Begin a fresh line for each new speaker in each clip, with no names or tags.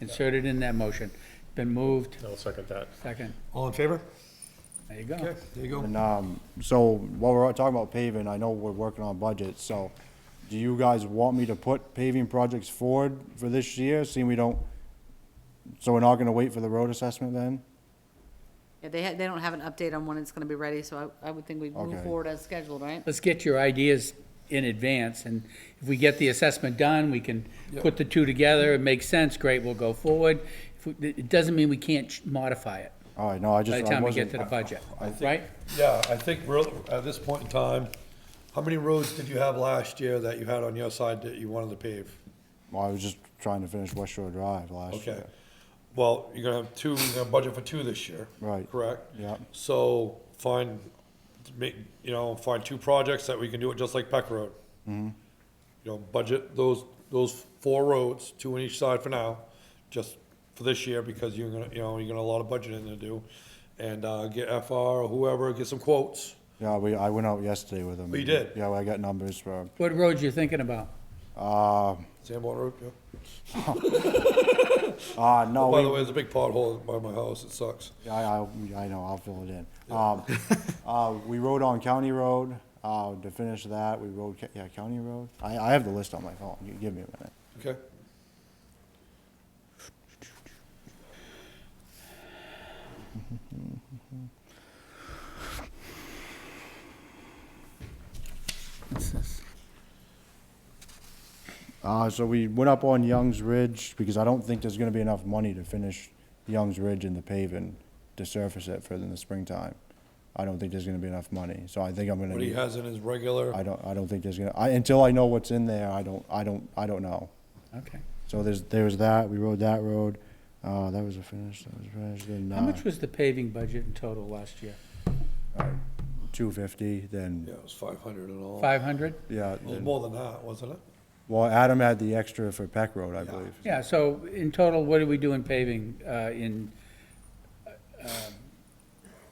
inserted in that motion. Been moved,
I'll second that.
second,
All in favor?
there you go.
Okay, there you go.
And, um, so while we're talking about paving, I know we're working on budget, so do you guys want me to put paving projects forward for this year, seeing we don't, so we're not gonna wait for the road assessment then?
Yeah, they, ha- they don't have an update on when it's gonna be ready, so I, I would think we'd move
Okay.
forward as scheduled, right?
Let's get your ideas in advance, and if we get the assessment done, we can put the two together, it makes sense, great, we'll go forward. If we- It doesn't mean we can't ch- modify it
All right, no, I just,
by the
I
time we get
wasn't,
to the budget,
I think-
right?
Yeah, I think we're, at this point in time, how many roads did you have last year that you had on your side that you wanted to pave?
well, I was just trying to finish West Shore Drive last
Okay,
year.
well, you're gonna have two, you're gonna budget for two this year.
Right.
Correct?
Yeah.
So find, make, you know, find two projects that we can do it just like Peck Road. Mm-hmm. You know, budget those, those four roads, two on each side for now, just for this year, because you're gonna, you know, you're gonna have a lot of budgeting to do. And, uh, get FR or whoever, get some quotes.
Yeah, we, I went out yesterday with them.
Oh, you did?
Yeah, I got numbers for,
What roads you thinking about?
uh,
Sanborn Road, yeah.
uh,
Oh,
no,
By
we,
the way, there's a big pothole by my house, it sucks.
Yeah, I, I, I know, I'll fill it in. Um, uh, we rode on County Road, uh, to finish that, we rode, Ca- yeah, County Road. I, I have the list on my phone, You give me a minute.
Okay.
Uh, so we went up on Young's Ridge, because I don't think there's gonna be enough money to finish Young's Ridge and the paving, to surface it for in the springtime. I don't think there's gonna be enough money, so I think I'm gonna.
What he
need-
has in his regular.
I don't, I don't think there's gonna, I, until I know what's in there, I don't, I don't, I don't know.
Okay.
So there's, there was that, we rode that road, uh, that was a finish, that was finished, then,
How
uh,
much was the paving budget in total last year?
two fifty,
Yeah,
then,
it was five hundred and all.
Five hundred?
yeah,
It was
then-
more than that, wasn't it?
well, Adam had the extra for Peck Road, I believe.
Yeah, so in total, what did we do in paving, uh, in, uh,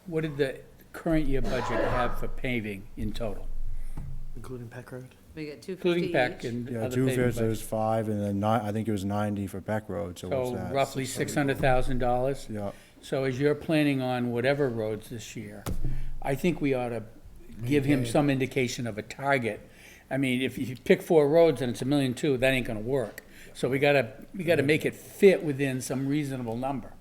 what did the current year budget have for paving in total?
Including Peck Road?
We get two fifty
Including PEC
each.
and
Yeah,
other
two
paving
fifty, there was
budgets.
five, and then nine, I think it was ninety for Peck Road, so what's
So
that?
roughly six hundred thousand dollars?
Yeah,
So as you're planning on whatever roads this year, I think we ought to give him some indication of a target. I mean, if you pick four roads and it's a million two, that ain't gonna work. So we gotta, we gotta make it fit within some reasonable number.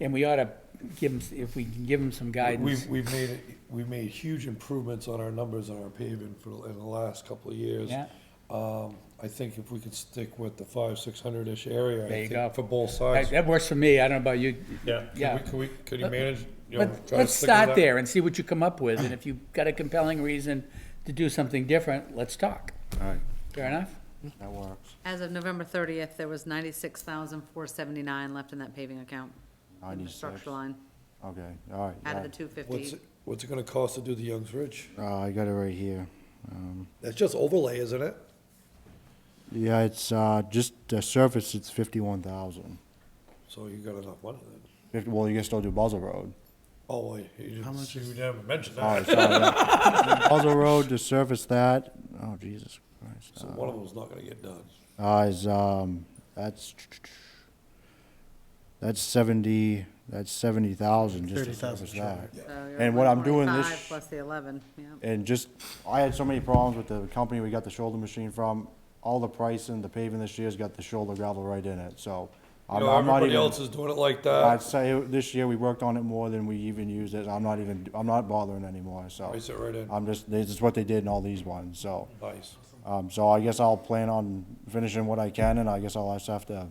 And we ought to give him, if we can give him some guidance.
We've, we've made, we've made huge improvements on our numbers on our paving for, the- in the last couple of years.
Yeah.
Um, I think if we could stick with the five, six hundred-ish area, I
There you
think,
go.
for both
That
sides.
that works for me, I don't know about you.
Yeah.
Yeah.
Could we, could you manage, you know,
But
try to
let's
stick with that?
start there and see what you come up with, and if you've got a compelling reason to do something different, let's talk.
all right,
Fair enough?
that works,
As of November thirtieth, there was ninety-six thousand four seventy-nine left in that paving account. in the
ninety-six, okay,
Structure line,
all right.
out
yeah.
of the two
What's,
fifty.
it- what's it gonna cost to do the Youngs Ridge?
Uh, I got it right here,
That's just overlay, isn't it?
yeah, it's, uh, just the surface, it's fifty-one thousand.
So you got enough money then.
Fifty, well, you can still do Buzzell Road. Oh,
Oh, wait, you didn't, see, we didn't mention
All
that.
right, sorry, yeah. Buzzell Road to surface that, oh, Jesus Christ.
So one of them's not gonna get done.
Uh, is, um, that's, that's seventy, that's seventy thousand, just to
30,000
service that.
And
And what I'm doing this-
Plus the eleven, yeah.
And just, I had so many problems with the company we got the shoulder machine from, all the pricing, the paving this year's got the shoulder gravel right in it, so.
You
I'm
know,
I'm not
everybody
even,
else uh, is doing it like that.
I'd say this year we worked on it more than we even used it, I'm not even, I'm not bothering anymore, so.
Price it right in.
I'm just, this is what they did in all these ones, so.
Nice.
Um, so I guess I'll plan on finishing what I can, and I guess I'll just have to,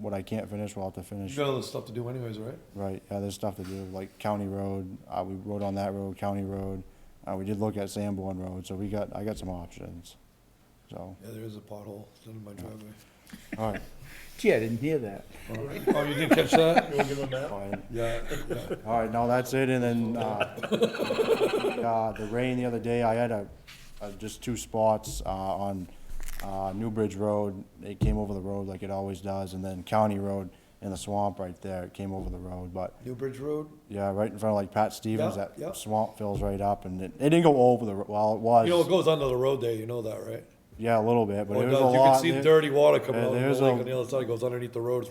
what I can't finish, we'll have to
You
finish.
got other stuff to do anyways, right?
Right, yeah, there's stuff to do, like County Road, uh, we rode on that road, County Road, uh, we did look at Sanborn Road, so we got, I got some options. So,
Yeah, there is a pothole in my driveway.
alright,
Gee, I didn't hear that.
Oh, you didn't catch that?
You wanna give them that?
fine,
Yeah, yeah.
alright, no, that's it, and then, uh, uh, the rain the other day, I had a, uh, just two spots, uh, on, uh, New Bridge Road, it came over the road like it always does, and then County Road in the swamp right there, it came over the road, but
New Bridge Road,
Yeah, right in front of like Pat Stevens,
Yeah,
that
yeah.
swamp fills right up, and it, it didn't go over the. Well, it was.
you know, it goes under the road there, you know that, right?
yeah, a little bit, but
Well,
it
it
was a
does. You
lot.
can see
there.
dirty water coming
Yeah,
out of
there's
the lake
a-
on the other side, it goes underneath the roads